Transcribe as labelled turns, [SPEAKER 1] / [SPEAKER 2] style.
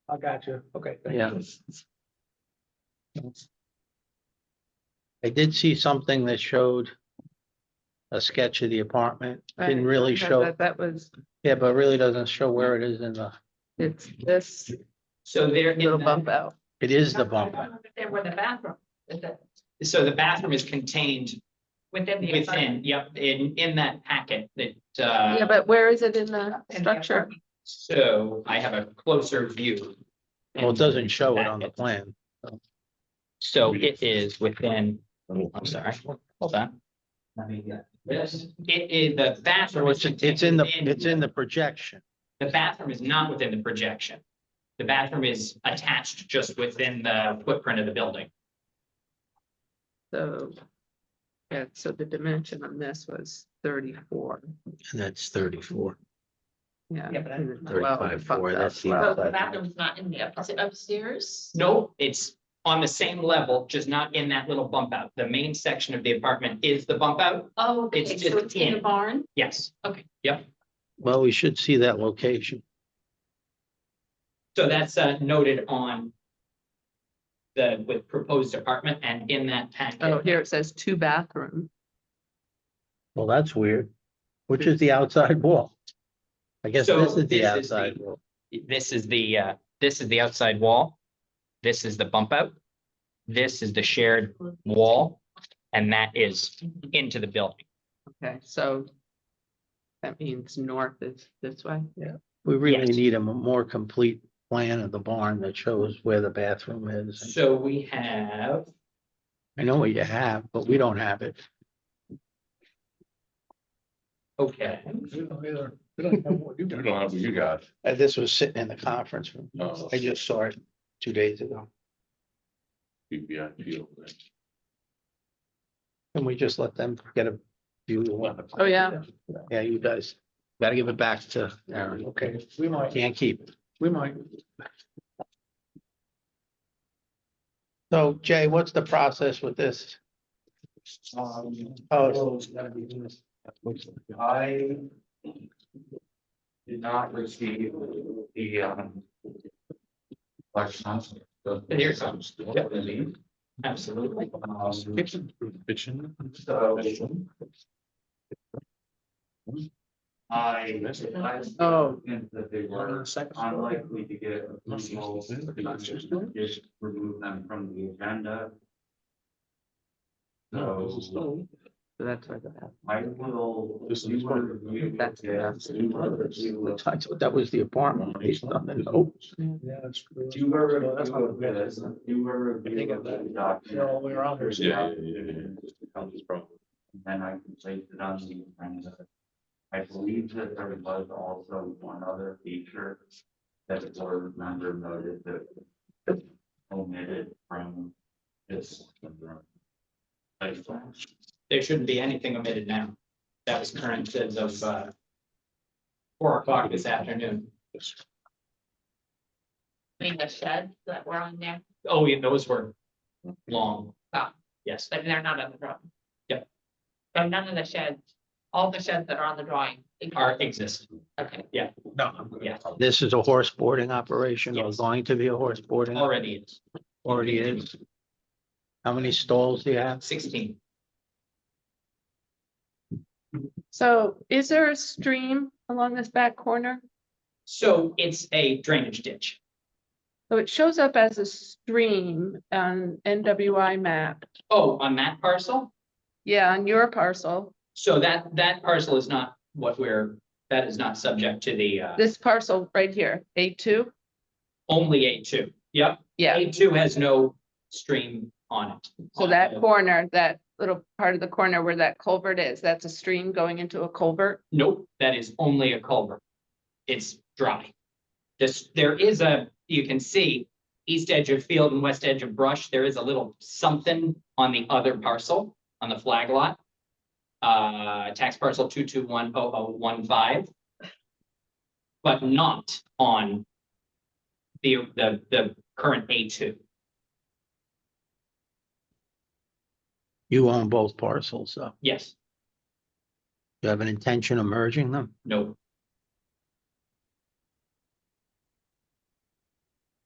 [SPEAKER 1] I got you. Okay. thank
[SPEAKER 2] Yeah.
[SPEAKER 1] you.
[SPEAKER 2] I did see something that showed a sketch of the apartment. Didn't
[SPEAKER 3] Right,
[SPEAKER 2] really
[SPEAKER 3] that-
[SPEAKER 2] show,
[SPEAKER 3] that- That was,
[SPEAKER 2] yeah, but really doesn't show where it is in the,
[SPEAKER 3] it's
[SPEAKER 4] Mm-hmm.
[SPEAKER 3] this
[SPEAKER 5] So there,
[SPEAKER 3] little bump out.
[SPEAKER 2] it is the bump.
[SPEAKER 4] There were the bathroom, is it
[SPEAKER 5] so the bathroom is contained
[SPEAKER 4] within the.
[SPEAKER 5] within, yep, in, in that packet that, uh.
[SPEAKER 3] Yeah, but where is it in the
[SPEAKER 4] apartment?
[SPEAKER 3] structure?
[SPEAKER 5] So I have a closer view.
[SPEAKER 2] Well, it doesn't show it on the plan.
[SPEAKER 5] So it is within, I'm sorry, hold on. Let me get this. It is, the bathroom.
[SPEAKER 2] So
[SPEAKER 5] is
[SPEAKER 2] it's, it's in the,
[SPEAKER 5] contained
[SPEAKER 2] it's in the projection.
[SPEAKER 5] The bathroom is not within the projection. The bathroom is attached just within the footprint of the building.
[SPEAKER 3] So. Yeah, so the dimension on this was thirty-four,
[SPEAKER 2] And that's thirty-four.
[SPEAKER 3] yeah. Mm-hmm.
[SPEAKER 4] Yeah, but I-
[SPEAKER 3] and the well
[SPEAKER 2] 35,
[SPEAKER 3] bumped
[SPEAKER 2] four,
[SPEAKER 3] out
[SPEAKER 2] that's the
[SPEAKER 3] well.
[SPEAKER 4] So the bathroom's not in the up- upstairs?
[SPEAKER 5] No, it's on the same level, just not in that little bump out. The main section of the apartment is the bump out.
[SPEAKER 4] Oh, okay,
[SPEAKER 5] It's
[SPEAKER 4] so
[SPEAKER 5] just
[SPEAKER 4] it's in the
[SPEAKER 5] in.
[SPEAKER 4] barn?
[SPEAKER 5] Yes.
[SPEAKER 4] Okay.
[SPEAKER 5] Yep.
[SPEAKER 2] Well, we should see that location.
[SPEAKER 5] So that's uh, noted on the, with proposed apartment and in that
[SPEAKER 3] Oh,
[SPEAKER 5] packet.
[SPEAKER 3] here it says two bathroom.
[SPEAKER 2] Well, that's weird. Which is the outside wall? I guess
[SPEAKER 5] So
[SPEAKER 2] this is the
[SPEAKER 5] this is the-
[SPEAKER 2] outside wall.
[SPEAKER 5] This is the, uh, this is the outside wall. This is the bump out. This is the shared wall, and that is into the building.
[SPEAKER 3] Okay, so. That means north is this way.
[SPEAKER 2] We really
[SPEAKER 5] Yes.
[SPEAKER 2] need a m- more complete plan of the barn that shows where the bathroom is.
[SPEAKER 5] So we have,
[SPEAKER 2] I know what you have, but we don't have it.
[SPEAKER 5] okay.
[SPEAKER 1] We don't either. We don't have what you
[SPEAKER 6] You
[SPEAKER 1] got.
[SPEAKER 6] don't have what you got.
[SPEAKER 2] Uh, This was sitting in the conference room.
[SPEAKER 6] Oh.
[SPEAKER 2] I just saw it two days ago.
[SPEAKER 6] PPIP over there.
[SPEAKER 2] Can we just let them get a view? of the one?
[SPEAKER 3] Oh, yeah.
[SPEAKER 2] Yeah, you guys gotta give it back to Aaron.
[SPEAKER 1] Okay, we might,
[SPEAKER 2] Can't keep. it.
[SPEAKER 1] we might.
[SPEAKER 2] So Jay, what's the process with this?
[SPEAKER 7] Um,
[SPEAKER 2] Oh, it's-
[SPEAKER 7] it's gotta be this. I did not receive the, um, like, sounds- the-
[SPEAKER 5] Here it comes.
[SPEAKER 6] Oh.
[SPEAKER 7] What I mean?
[SPEAKER 5] Absolutely.
[SPEAKER 7] Um,
[SPEAKER 6] Kitchen.
[SPEAKER 7] so- I, I.
[SPEAKER 3] Oh.
[SPEAKER 7] And that they were unlikely to get approvals, just remove them from the agenda. So.
[SPEAKER 1] Oh,
[SPEAKER 3] So that's where the bathroom.
[SPEAKER 7] I will.
[SPEAKER 6] This is
[SPEAKER 7] we will
[SPEAKER 6] part of it.
[SPEAKER 7] review
[SPEAKER 3] That's
[SPEAKER 7] it, yes, we will review
[SPEAKER 2] I
[SPEAKER 7] it.
[SPEAKER 2] thought that was the apartment based on the note.
[SPEAKER 1] Yeah, it's.
[SPEAKER 7] Do you ever
[SPEAKER 1] No, that's not
[SPEAKER 7] review
[SPEAKER 1] good.
[SPEAKER 7] this? Do you ever
[SPEAKER 1] I think
[SPEAKER 7] review
[SPEAKER 1] of that.
[SPEAKER 7] the document?
[SPEAKER 1] No, we're on here.
[SPEAKER 6] Yeah, yeah, yeah, yeah, yeah.
[SPEAKER 7] Then I can place it on the agenda. I believe that there was also one other feature that the board member noted that omitted from this. Like,
[SPEAKER 5] There shouldn't be anything omitted now. That was current as of uh. Four o'clock this afternoon.
[SPEAKER 4] I mean, the shed that were on there,
[SPEAKER 5] Oh, yeah, those were long.
[SPEAKER 4] Ah.
[SPEAKER 5] Yes,
[SPEAKER 4] but they're not on the drawing.
[SPEAKER 5] Yep.
[SPEAKER 4] So none of the sheds, all the sheds that are on the drawing.
[SPEAKER 5] are exist.
[SPEAKER 4] Okay,
[SPEAKER 1] No, I'm good.
[SPEAKER 5] Yeah,
[SPEAKER 2] This is a horse boarding operation or
[SPEAKER 5] Yes.
[SPEAKER 2] going to be a horse boarding.
[SPEAKER 5] already it's
[SPEAKER 2] Already is. How many stalls do you have?
[SPEAKER 5] sixteen.
[SPEAKER 3] So is there a stream along this back corner?
[SPEAKER 5] So it's a drainage ditch.
[SPEAKER 3] So it shows up as a stream on NWI map.
[SPEAKER 5] Oh, on that parcel?
[SPEAKER 3] Yeah, on your parcel.
[SPEAKER 5] So that that parcel is not what we're, that is not subject to the uh
[SPEAKER 3] This parcel right here, A two.
[SPEAKER 5] only A two. Yep,
[SPEAKER 3] Yeah,
[SPEAKER 5] A two has no stream on it.
[SPEAKER 3] so that corner, that little part of the corner where that culvert is, that's a stream going into a culvert.
[SPEAKER 5] Nope, that is only a culvert. It's dry. This, there is a, you can see, east edge of field and west edge of brush, there is a little something on the other parcel, on the flag lot. Uh, tax parcel two two one oh oh one five. But not on the, the, the current A two.
[SPEAKER 2] You own both parcels, so
[SPEAKER 5] Yes,
[SPEAKER 2] you have an intention of merging them?
[SPEAKER 5] no,